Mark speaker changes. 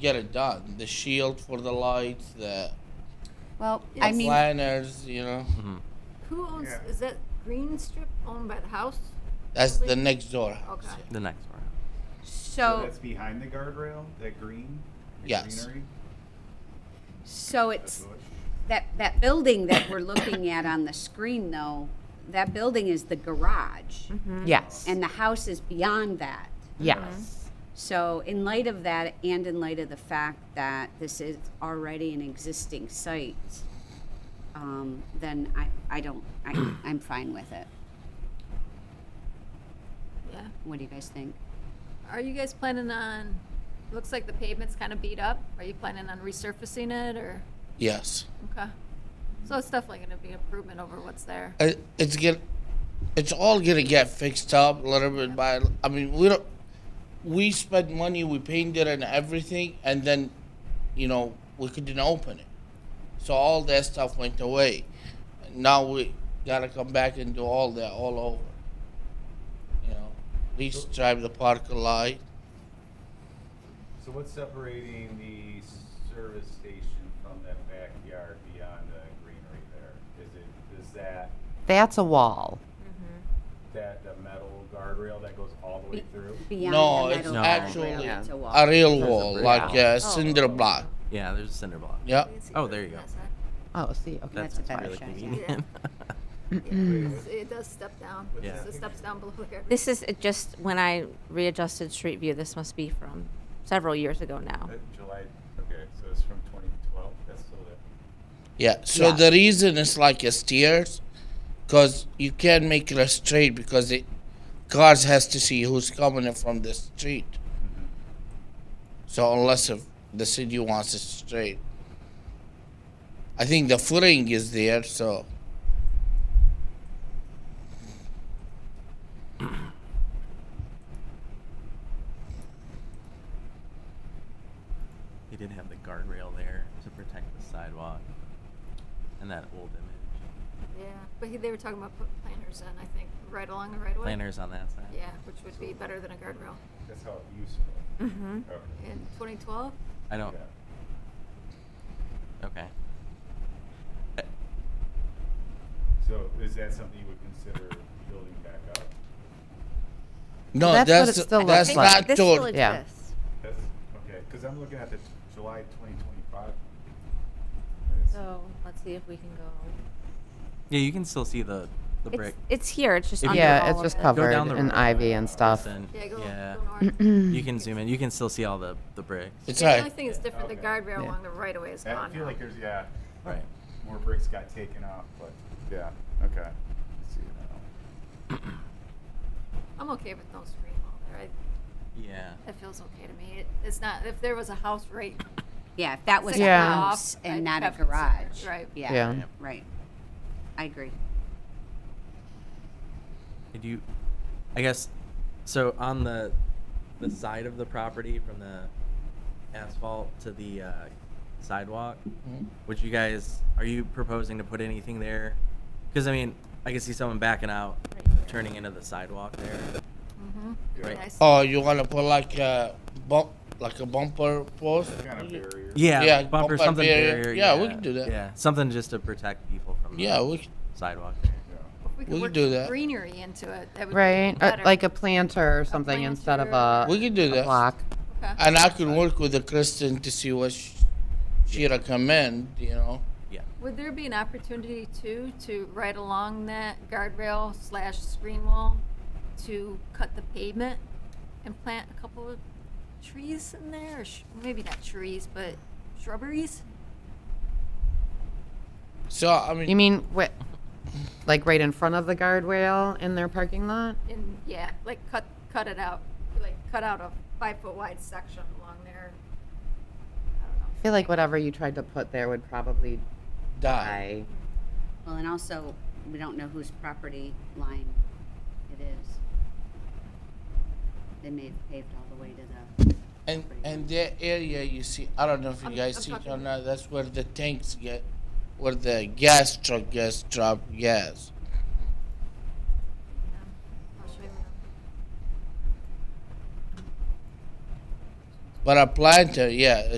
Speaker 1: get it done. The shield for the lights, the
Speaker 2: Well,
Speaker 1: the
Speaker 2: I mean,
Speaker 1: planners, you know.
Speaker 3: Who owns,
Speaker 4: Yeah.
Speaker 3: is that green strip owned by the house?
Speaker 1: That's the
Speaker 3: Like-
Speaker 1: next door house.
Speaker 3: Okay.
Speaker 5: The next one.
Speaker 4: So
Speaker 2: so
Speaker 4: that's behind the guardrail, that green? the
Speaker 1: Yes.
Speaker 4: greenery?
Speaker 2: so
Speaker 4: That's
Speaker 2: it's
Speaker 4: what-
Speaker 2: that that building that we're looking at on the screen though. That building is the garage,
Speaker 6: Yes.
Speaker 2: and the house is beyond that.
Speaker 6: yes.
Speaker 2: So, in light of that, and in light of the fact that this is already an existing site, um, then I, I don't, I, I'm fine with it.
Speaker 3: Yeah.
Speaker 2: What do you guys think?
Speaker 3: Are you guys planning on, looks like the pavement's kind of beat up. Are you planning on resurfacing it or,
Speaker 1: Yes.
Speaker 3: okay? So it's definitely going to be improvement over what's there.
Speaker 1: it, it's get it's all gonna get fixed up a little bit by I mean we don't we spent money we painted and everything and then you know we couldn't open it so all that stuff went away now we gotta come back and do all that all over you know restripe the park light
Speaker 4: So what's separating the service station from that backyard beyond the greenery there? Is it, is that,
Speaker 6: That's a wall.
Speaker 4: that the metal guardrail that goes all the way through?
Speaker 2: Beyond
Speaker 1: No,
Speaker 2: the
Speaker 1: it's
Speaker 2: metal
Speaker 5: No.
Speaker 2: wall,
Speaker 1: actually
Speaker 2: really, it's a wall.
Speaker 1: a real wall
Speaker 5: brick
Speaker 1: like
Speaker 6: Oh.
Speaker 5: wall.
Speaker 1: a cinder block
Speaker 5: Yeah, there's a cinder block.
Speaker 1: yeah
Speaker 5: Oh, there you go.
Speaker 6: Oh, see, okay.
Speaker 2: That's
Speaker 5: That's,
Speaker 2: a
Speaker 5: that's
Speaker 2: better
Speaker 5: really
Speaker 2: shot, yeah.
Speaker 5: convenient.
Speaker 3: It does step down.
Speaker 5: Yeah.
Speaker 3: It steps down below here.
Speaker 7: This is it just when I readjusted Street View. This must be from several years ago now.
Speaker 4: Uh, July, okay, so it's from twenty twelve, that's still there.
Speaker 1: Yeah. So the reason it's like a stairs, because you can't make it a straight because it cars has to see who's coming in from the street. So unless if the city wants it straight, I think the footing is there. So
Speaker 5: They did have the guardrail there to protect the sidewalk and that old image.
Speaker 3: Yeah, but he- they were talking about putting planters in, I think, right along the right of way.
Speaker 5: Planners on that side.
Speaker 3: Yeah, which would be better than a guardrail.
Speaker 4: That's how it used to.
Speaker 7: Mm-hmm.
Speaker 4: be. Okay.
Speaker 3: In 2012,
Speaker 5: I don't.
Speaker 4: Yeah.
Speaker 5: Okay. Uh,
Speaker 4: So is that something you would consider building back up?
Speaker 1: no,
Speaker 6: that's what
Speaker 1: that's
Speaker 6: it still
Speaker 1: that's,
Speaker 6: looks like.
Speaker 1: not
Speaker 7: This
Speaker 1: door-
Speaker 7: still
Speaker 6: yeah.
Speaker 7: exists.
Speaker 4: That's, okay, because I'm looking at the t- July twenty twenty-five.
Speaker 7: So let's see if we can go.
Speaker 5: Yeah, you can still see the the
Speaker 7: It's,
Speaker 5: brick.
Speaker 7: it's here. It's just under
Speaker 6: Yeah,
Speaker 7: all
Speaker 6: it's
Speaker 7: of
Speaker 6: just
Speaker 7: it.
Speaker 6: covered
Speaker 5: the
Speaker 6: in
Speaker 5: road,
Speaker 6: ivy and stuff.
Speaker 5: Kristen.
Speaker 3: yeah, go,
Speaker 5: yeah.
Speaker 3: go north.
Speaker 5: you can zoom in. You can still see all the the bricks.
Speaker 1: It's
Speaker 3: Yeah, the only
Speaker 1: right.
Speaker 3: thing that's different, the
Speaker 4: Okay.
Speaker 3: guardrail
Speaker 6: Yeah.
Speaker 3: along the right of way is
Speaker 4: I
Speaker 3: gone
Speaker 4: feel
Speaker 3: now.
Speaker 4: like there's, yeah,
Speaker 5: Right.
Speaker 4: more bricks got taken off, but, yeah, okay. Let's see now.
Speaker 3: I'm okay with no screen wall there. I-
Speaker 5: Yeah.
Speaker 3: It feels okay to me. It- It's not, if there was a house right.
Speaker 2: Yeah, if that was a
Speaker 3: six
Speaker 6: Yeah.
Speaker 2: house
Speaker 3: off, I'd
Speaker 2: and not a
Speaker 3: have considered,
Speaker 2: garage.
Speaker 3: Right.
Speaker 2: Yeah,
Speaker 6: Yeah.
Speaker 2: right. I agree.
Speaker 5: Could you? I guess. So on the the side of the property from the asphalt to the uh, sidewalk,
Speaker 1: Mhm.
Speaker 5: would you guys are you proposing to put anything there? Because I mean, I can see someone backing out, turning into the sidewalk there.
Speaker 3: Mhm.
Speaker 5: Right.
Speaker 3: Nice.
Speaker 1: Oh, you wanna put like a bump, like a bumper post?
Speaker 4: Kind of barrier.
Speaker 5: Yeah,
Speaker 1: Yeah,
Speaker 5: bumper,
Speaker 1: bumper
Speaker 5: something
Speaker 1: barrier.
Speaker 5: barrier.
Speaker 1: Yeah, we can do that.
Speaker 5: Yeah, something just to protect people from
Speaker 1: Yeah,
Speaker 5: the
Speaker 1: we c-
Speaker 5: sidewalk. There.
Speaker 4: Yeah.
Speaker 3: We
Speaker 1: we
Speaker 3: could work
Speaker 1: do that.
Speaker 3: greenery into it. That would be
Speaker 6: Right? Uh,
Speaker 3: better.
Speaker 6: like a planter or something instead of a,
Speaker 1: we can do
Speaker 6: a
Speaker 1: that.
Speaker 6: block.
Speaker 3: Okay.
Speaker 1: And I can work with the Kristen to see what she, she recommend. You know.
Speaker 5: Yeah.
Speaker 3: Would there be an opportunity too, to right along that guardrail slash screen wall, to cut the pavement and plant a couple of trees in there? Or sh- Maybe not trees, but shrubberies?
Speaker 1: So I mean,
Speaker 6: You mean what? Like right in front of the guardrail in their parking lot?
Speaker 3: And, yeah, like cut, cut it out, like cut out a five foot wide section along there. I don't know.
Speaker 6: I feel like whatever you tried to put there would probably
Speaker 1: die.
Speaker 6: die.
Speaker 2: Well, and also, we don't know whose property line it is. They may have paved all the way to the,
Speaker 1: And and that area you see, I don't know if you
Speaker 3: I'm-
Speaker 1: guys
Speaker 3: I'm
Speaker 1: see it or
Speaker 3: talking-
Speaker 1: not. That's where the tanks get, where the gas truck gets dropped gas.
Speaker 3: Yeah. I'll show you around.
Speaker 1: But a planter, yeah,